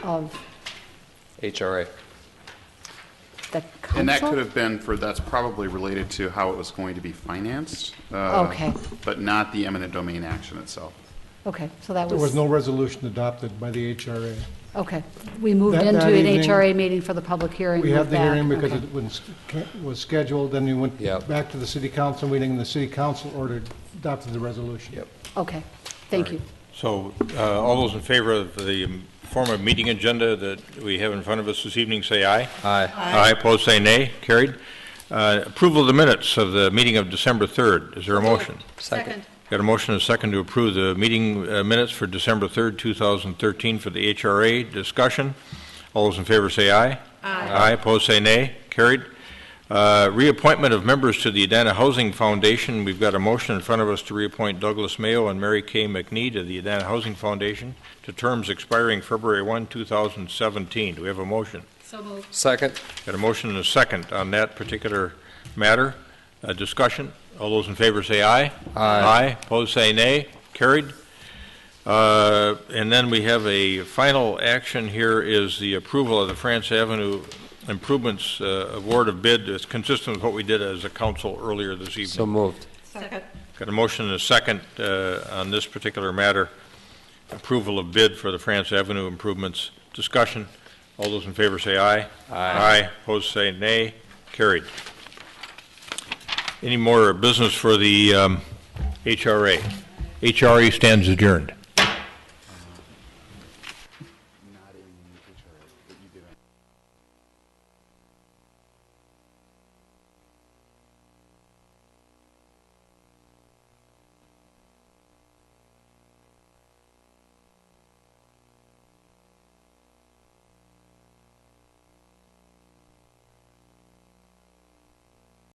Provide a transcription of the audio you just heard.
of HRA. the council? And that could have been for, that's probably related to how it was going to be financed. uh, Okay. But not the eminent domain action itself. Okay, so that was. There was no resolution adopted by the HRA. Okay, we moved That- into that an evening- HRA meeting for the public hearing. We moved had the back. hearing because Okay. it was was scheduled, then we went Yep. back to the city council meeting, and the city council ordered, adopted the resolution. Okay, thank you. So, uh, all those in favor of the form of meeting agenda that we have in front of us this evening, say aye. Aye. Aye, opposed, say nay. Carried. Uh, Approval of the minutes of the meeting of December 3rd. Is there a motion? Second. Got a motion and a second to approve the meeting uh, minutes for December 3rd, 2013 for the HRA discussion. All those in favor say aye. Aye. Aye, opposed say nay. Carried. Uh, Reappointment of members to the Adana Housing Foundation. We've got a motion in front of us to reappoint Douglas Mayo and Mary Kay McNee to the Adana Housing Foundation to terms expiring February 1, 2017. Do we have a motion? So moved. Second. Got a motion and a second on that particular matter. Uh, Discussion, all those in favor say aye. Aye. Opposed say nay. Carried. Uh, And then we have a final action here is the approval of the France Avenue Improvements uh, Award of Bid. It's consistent with what we did as a council earlier this evening. So moved. Second. Got a motion and a second uh, on this particular matter, approval of bid for the France Avenue improvements. Discussion. All those in favor say aye. Aye. Opposed say nay. Carried. Any more business for the um, HRA? HRA stands adjourned.